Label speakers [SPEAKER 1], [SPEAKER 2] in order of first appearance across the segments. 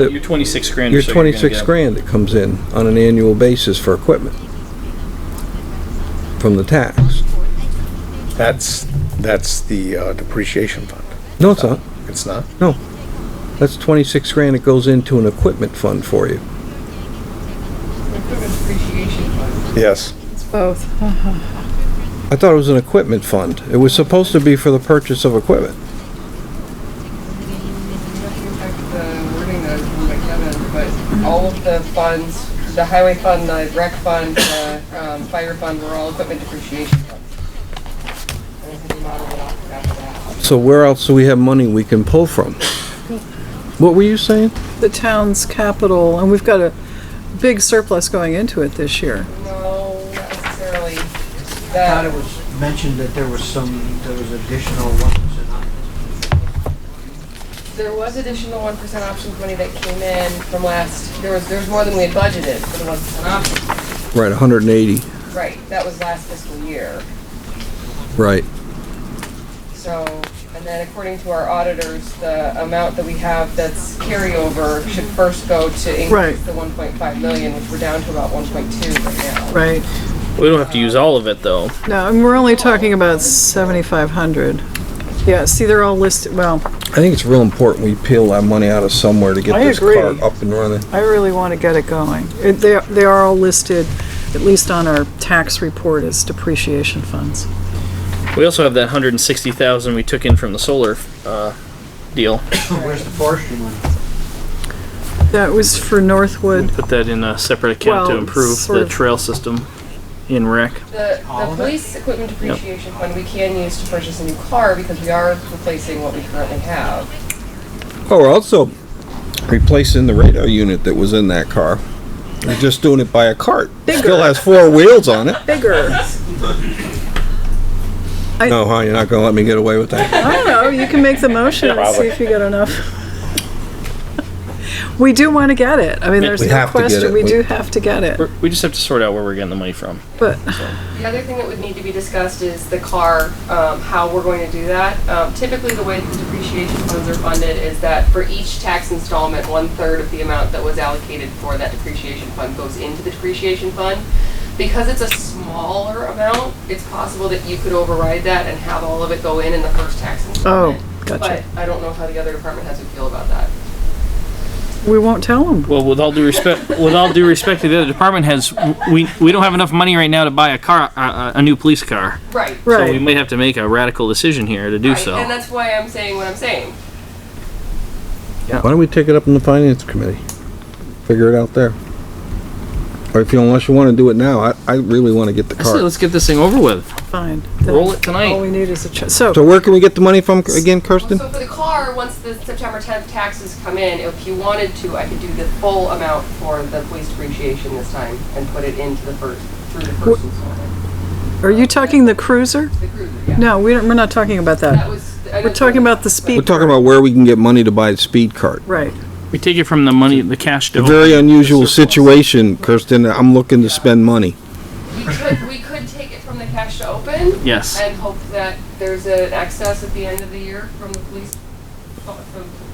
[SPEAKER 1] Your
[SPEAKER 2] that,
[SPEAKER 1] twenty-six grand.
[SPEAKER 2] your
[SPEAKER 1] or so you're gonna
[SPEAKER 2] twenty-six
[SPEAKER 1] get.
[SPEAKER 2] grand that comes in on an annual basis for equipment from the tax.
[SPEAKER 3] That's, that's the uh, depreciation fund. Uh,
[SPEAKER 2] No, it's not.
[SPEAKER 3] It's not?
[SPEAKER 2] That's twenty-six grand that goes into an equipment fund for you.
[SPEAKER 4] Equipment depreciation fund.
[SPEAKER 3] Yes.
[SPEAKER 4] It's both.
[SPEAKER 2] I thought it was an equipment fund. It was supposed to be for the purchase of equipment.
[SPEAKER 4] looking at the wording that was from McKevin, but all of the funds, the highway fund, the rec fund, the um, fire fund, were all equipment depreciation funds. And I think we modeled it off after that.
[SPEAKER 2] So where else do we have money we can pull from? What were you saying?
[SPEAKER 5] the town's capital, and we've got a big surplus going into it this year.
[SPEAKER 4] No, not necessarily.
[SPEAKER 6] thought it
[SPEAKER 4] That,
[SPEAKER 6] was mentioned that there was some, there was additional ones uh, and I-
[SPEAKER 4] there was additional one percent options money that came in from last, there was, there was more than we had budgeted for the one percent options.
[SPEAKER 2] Right, hundred and eighty.
[SPEAKER 4] Right, that was last fiscal year.
[SPEAKER 2] Right.
[SPEAKER 4] So, and then according to our auditors, the amount that we have that's carryover should first go to increase
[SPEAKER 5] Right.
[SPEAKER 4] the one point five million, which we're down to about one point two right now.
[SPEAKER 5] Right.
[SPEAKER 7] We don't have to use all of it though.
[SPEAKER 5] No, and we're only talking about 7,500. Yeah, see, they're all listed, well,
[SPEAKER 2] I think it's real important we peel that money out of somewhere to get
[SPEAKER 5] I
[SPEAKER 2] this
[SPEAKER 5] agree.
[SPEAKER 2] car up and running.
[SPEAKER 5] I really want to get it going. It- They, are- they are all listed, at least on our tax report, as depreciation funds.
[SPEAKER 7] We also have that hundred and sixty thousand we took in from the solar uh, deal.
[SPEAKER 6] where's the forestry money?
[SPEAKER 5] That was for
[SPEAKER 7] We
[SPEAKER 5] Northwood.
[SPEAKER 7] put that in a separate account to
[SPEAKER 5] Well,
[SPEAKER 7] improve
[SPEAKER 5] sort
[SPEAKER 7] the
[SPEAKER 5] of-
[SPEAKER 7] trail system in rec.
[SPEAKER 4] The,
[SPEAKER 6] All
[SPEAKER 4] the
[SPEAKER 6] of it?
[SPEAKER 4] police equipment depreciation fund, we can use to purchase a new car because we are replacing what we currently have.
[SPEAKER 2] Oh, we're also replacing the radar unit that was in that car. We're just doing it by a cart. Still has four wheels on it.
[SPEAKER 5] Bigger.
[SPEAKER 2] No, huh? You're not gonna let me get away with that.
[SPEAKER 5] I don't know, you can make the motion and see if you get enough. We do want to get it. I mean, there's
[SPEAKER 2] We
[SPEAKER 5] no
[SPEAKER 2] have to get it.
[SPEAKER 5] question, we
[SPEAKER 2] We-
[SPEAKER 5] do have to get it.
[SPEAKER 7] We're, we just have to sort out where we're getting the money from.
[SPEAKER 5] But
[SPEAKER 4] The other thing that would need to be discussed is the car, um, how we're going to do that. Um, typically, the way the depreciation funds are funded is that for each tax installment, one-third of the amount that was allocated for that depreciation fund goes into the depreciation fund. Because it's a smaller amount, it's possible that you could override that and have all of it go in in the first tax installment.
[SPEAKER 5] oh, gotcha.
[SPEAKER 4] But I don't know how the other department has to feel about that.
[SPEAKER 5] we won't tell them.
[SPEAKER 7] Well, with all due respect, with all due respect to the other department heads, we we don't have enough money right now to buy a car, a, a new police car.
[SPEAKER 4] Right.
[SPEAKER 7] So we
[SPEAKER 5] Right.
[SPEAKER 7] may have to make a radical decision here to do
[SPEAKER 4] Right,
[SPEAKER 7] so.
[SPEAKER 4] And that's why I'm saying what I'm saying.
[SPEAKER 2] Why don't we take it up in the finance committee? Figure it out there. Or if you, unless you wanna do it now, I, I really wanna get the
[SPEAKER 7] I say
[SPEAKER 2] car.
[SPEAKER 7] let's get this thing over with.
[SPEAKER 5] Fine.
[SPEAKER 7] Roll it tonight.
[SPEAKER 5] All we need is a check. So,
[SPEAKER 2] So where can we get the money from again, Kirsten?
[SPEAKER 4] So for the car, once the September tenth taxes come in, if you wanted to, I could do the full amount for the police depreciation this time and put it into the first, through the first installment,
[SPEAKER 5] are you talking the cruiser?
[SPEAKER 4] the cruiser, yeah.
[SPEAKER 5] No, we don't, we're not talking about
[SPEAKER 4] That
[SPEAKER 5] that.
[SPEAKER 4] was.
[SPEAKER 5] We're talking about the
[SPEAKER 2] We're
[SPEAKER 5] speed.
[SPEAKER 2] talking about where we can get money to buy a speed cart.
[SPEAKER 5] Right.
[SPEAKER 7] We take it from the money, the cash.
[SPEAKER 2] A
[SPEAKER 7] donor.
[SPEAKER 2] very unusual situation, Kirsten. I'm looking to spend money.
[SPEAKER 4] We could, we could take it from the cash to open
[SPEAKER 7] Yes.
[SPEAKER 4] and hope that there's an excess at the end of the year from the police, from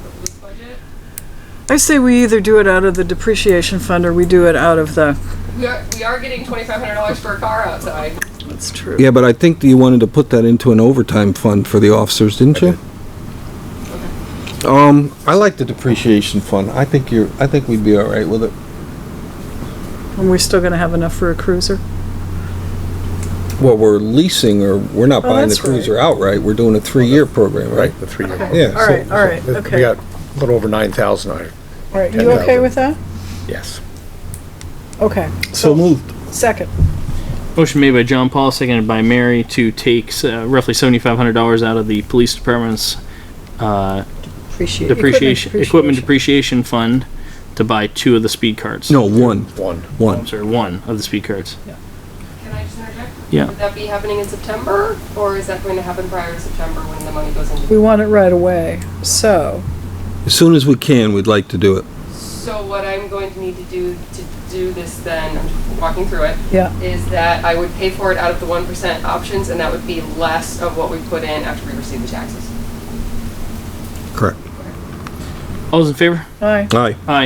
[SPEAKER 4] the police budget.
[SPEAKER 5] I say we either do it out of the depreciation fund or we do it out of the,
[SPEAKER 4] We are, we are getting twenty-five hundred dollars for a car outside.
[SPEAKER 5] that's true.
[SPEAKER 2] Yeah, but I think that you wanted to put that into an overtime fund for the officers, didn't you? Um, I like the depreciation fund. I think you're, I think we'd be all right with it.
[SPEAKER 5] And we're still gonna have enough for a cruiser?
[SPEAKER 2] Well, we're leasing or we're not
[SPEAKER 5] Oh,
[SPEAKER 2] buying the
[SPEAKER 5] that's right.
[SPEAKER 2] cruiser outright. We're doing a three-year program, right?
[SPEAKER 3] The three.
[SPEAKER 2] Yeah.
[SPEAKER 5] All right, all right,
[SPEAKER 3] We
[SPEAKER 5] okay.
[SPEAKER 3] got a little over 9,000 on it.
[SPEAKER 5] All right, you
[SPEAKER 3] 10,000.
[SPEAKER 5] okay with that?
[SPEAKER 3] Yes.
[SPEAKER 5] Okay.
[SPEAKER 2] So moved.
[SPEAKER 5] Second.
[SPEAKER 7] Motion made by John Paul, seconded by Mary to take uh, roughly seventy-five hundred dollars out of the police department's uh,
[SPEAKER 5] Appreciate
[SPEAKER 7] depreciation, equipment depreciation fund to buy two of the speed carts.
[SPEAKER 2] No, one,
[SPEAKER 3] One.
[SPEAKER 7] I'm
[SPEAKER 2] one.
[SPEAKER 7] sorry, one of the speed carts.
[SPEAKER 4] Can I just interject?
[SPEAKER 7] Yeah.
[SPEAKER 4] Would that be happening in September, or is that going to happen prior to September when the money goes into?
[SPEAKER 5] We want it right away, so,
[SPEAKER 2] As soon as we can, we'd like to do it.
[SPEAKER 4] So what I'm going to need to do to do this then, I'm just walking through it,
[SPEAKER 5] yeah.
[SPEAKER 4] is that I would pay for it out of the one percent options, and that would be less of what we put in after we receive the taxes.
[SPEAKER 2] Correct.
[SPEAKER 8] All those in favor?
[SPEAKER 7] Aye.
[SPEAKER 5] Aye.